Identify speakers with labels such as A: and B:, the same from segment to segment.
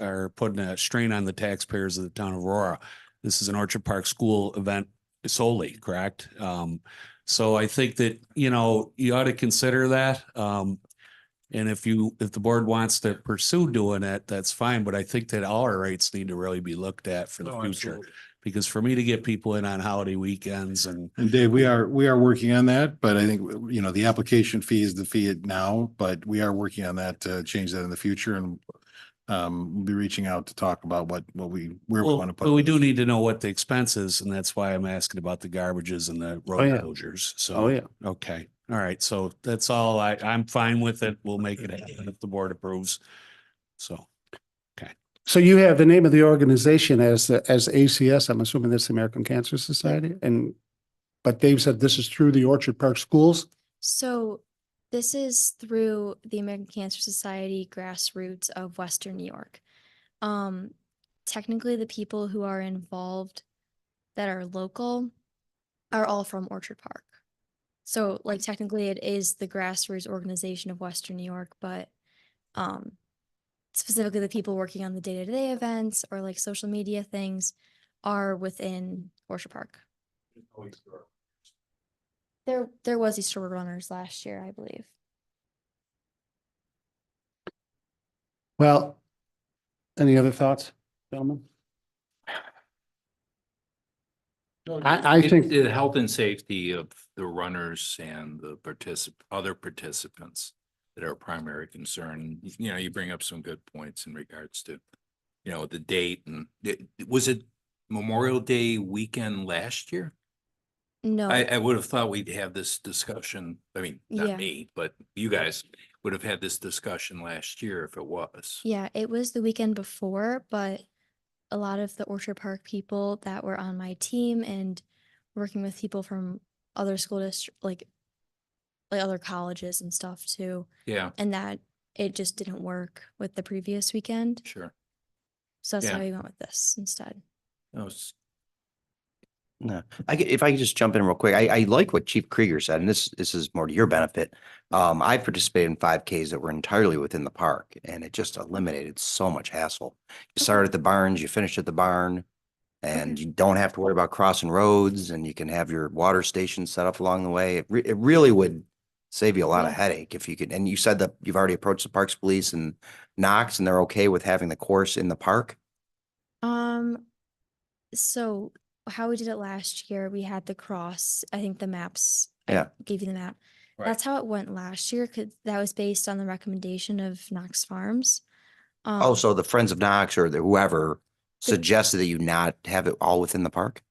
A: are putting a strain on the taxpayers of the town of Aurora. This is an Orchard Park School event solely, correct? Um, so I think that, you know, you ought to consider that. Um, and if you, if the board wants to pursue doing it, that's fine, but I think that all our rights need to really be looked at for
B: Oh,
A: the
C: No,
A: future.
C: absolutely.
A: Because for me to get people in on holiday weekends and
B: And Dave, we are, we are working on that, but I think, you know, the application fee is the fee it now, but we are working on that to change that in the future and um, we'll be reaching out to talk about what, what we, where we
A: Well,
B: want to put.
A: But we do
B: this.
A: need to know what the expense is, and that's why I'm asking about the garbages and the
D: yeah.
A: road closures.
D: Oh,
A: So,
D: yeah.
A: okay, all right, so that's all. I, I'm fine with it. We'll make it happen if the board approves. So,
D: So you have the name of the organization as, the- as ACS, I'm assuming that's the American Cancer Society, and, but Dave said this is through the Orchard Park Schools?
E: So this is through the American Cancer Society grassroots of Western New York. Um, technically, the people who are involved that are local are all from Orchard Park. So like technically it is the grassroots organization of Western New York, but um specifically the people working on the day-to-day events or like social media things are within Orchard Park. There, there was Easter Road Runners last year, I believe.
D: Well, any other thoughts, gentlemen? I, I
F: It-
D: think,
F: The health and safety of the runners and the particip, other participants that are a primary concern, you know, you bring up some good points in regards to, you know, the date and, it- was it Memorial Day weekend last year?
E: No.
F: I, I would have thought we'd have this discussion, I mean,
E: Yeah.
F: not me, but you guys would have had this discussion last year if it was.
E: Yeah, it was the weekend before, but a lot of the Orchard Park people that were on my team and working with people from other school district, like like other colleges and stuff too,
F: Yeah,
E: and that it just didn't work with the previous weekend.
F: sure.
E: So that's
F: Yeah.
E: how we went with this instead.
F: That was-
G: No, I get, if I could just jump in real quick, I, I like what Chief Krieger said, and this, this is more to your benefit. Um, I participated in five Ks that were entirely within the park and it just eliminated so much hassle. You start at the barns, you finish at the barn. And you don't have to worry about crossing roads and you can have your water station set up along the way. It re- it really would save you a lot of
E: Yeah.
G: headache if you could, and you said that you've already approached the Parks Police and Knox and they're okay with having the course in the park?
E: Um, so how we did it last year, we had the cross, I think the maps. I
G: Yeah.
E: Gave you the map.
F: Right.
E: That's how it went last year, cause that was based on the recommendation of Knox Farms.
G: Oh,
E: Um,
G: so the Friends of Knox or the whoever
E: The-
G: suggested that you not have it all within the park?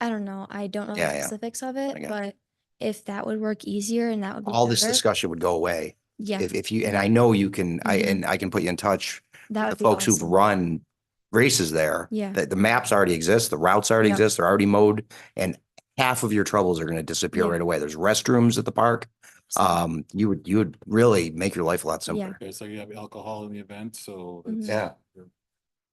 E: I don't know, I don't know
G: Yeah,
E: the
G: yeah.
E: specifics of it,
G: got
E: but if that would work easier and that would be
G: All this
E: better,
G: discussion would go away
E: Yeah,
G: if, if you, and I know you can, I,
E: Mhm.
G: and I can put you in touch
E: that
G: with the
E: would be
G: folks who've
E: awesome.
G: run races there.
E: Yeah.
G: The, the maps already exist, the routes already
E: Yep.
G: exist, they're already mowed and half of your troubles are going to disappear
E: Yeah.
G: right away. There's restrooms at the park.
E: So-
G: Um, you would, you would really make your life a lot
E: Yeah,
G: simpler.
C: Okay, so you have alcohol in the event, so.
E: Mhm.
G: Yeah.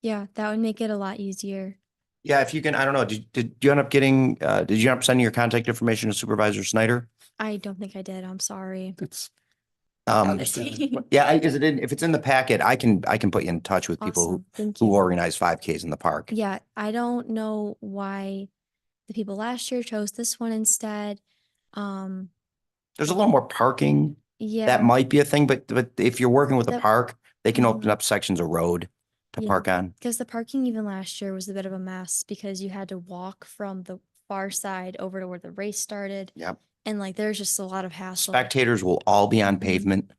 E: yeah, that would make it a lot easier.
G: Yeah, if you can, I don't know, did, did you end up getting, uh, did you end up sending your contact information to Supervisor Snyder?
E: I don't think I did, I'm sorry.
D: it's,
G: Um,
E: Awesome,
G: Yeah, I, is it in, if it's in the packet, I can, I can put you in touch with people who,
E: thank
G: who
E: you.
G: organize five Ks in the park.
E: Yeah, I don't know why the people last year chose this one instead. Um,
G: There's a little more parking.
E: yeah,
G: That might be a thing, but, but if you're working with a
E: That-
G: park, they can open
E: Mhm.
G: up sections of road to
E: Yeah.
G: park on.
E: because the parking even last year was a bit of a mess because you had to walk from the far side over to where the race started.
G: Yep.
E: And like, there's just a lot of hassle.
G: Spectators will all be on
E: Mhm.
G: pavement.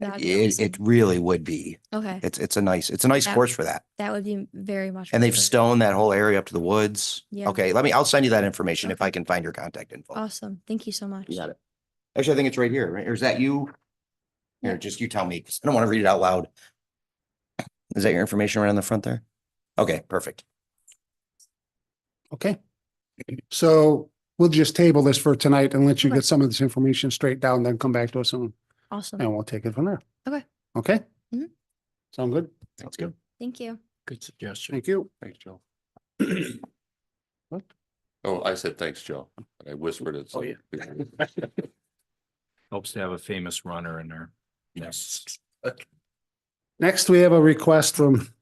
E: That'd be
G: It, it
E: awesome.
G: really would be.
E: Okay,
G: It's, it's a nice, it's a nice
E: That-
G: course for that.
E: that would be very much.
G: And they've
E: preferred.
G: stoned that whole area up to the woods.
E: Yeah.
G: Okay, let me, I'll send you that information if
E: Okay.
G: I can find your contact info.
E: Awesome, thank you so much.
G: You got it. Actually, I think it's right here, right? Or is that you? Here,
E: Yeah.
G: just you tell me, 'cause I don't want to read it out loud. Is that your information right on the front there? Okay, perfect.
D: okay. So we'll just table this for tonight and let you get some of this information straight down, then come back to us and,
E: Awesome,
D: and we'll take it from there.
E: Okay.
D: Okay?
E: Mhm.
D: Sound good?
F: Sounds good.
E: thank you.
F: Good suggestion.
D: Thank you.
C: Thanks, Joe.
D: What?
C: Oh, I said, thanks, Joe. I whispered it.
F: Oh, yeah. Helps to have a famous runner in there. Yes.
D: Next, we have a request from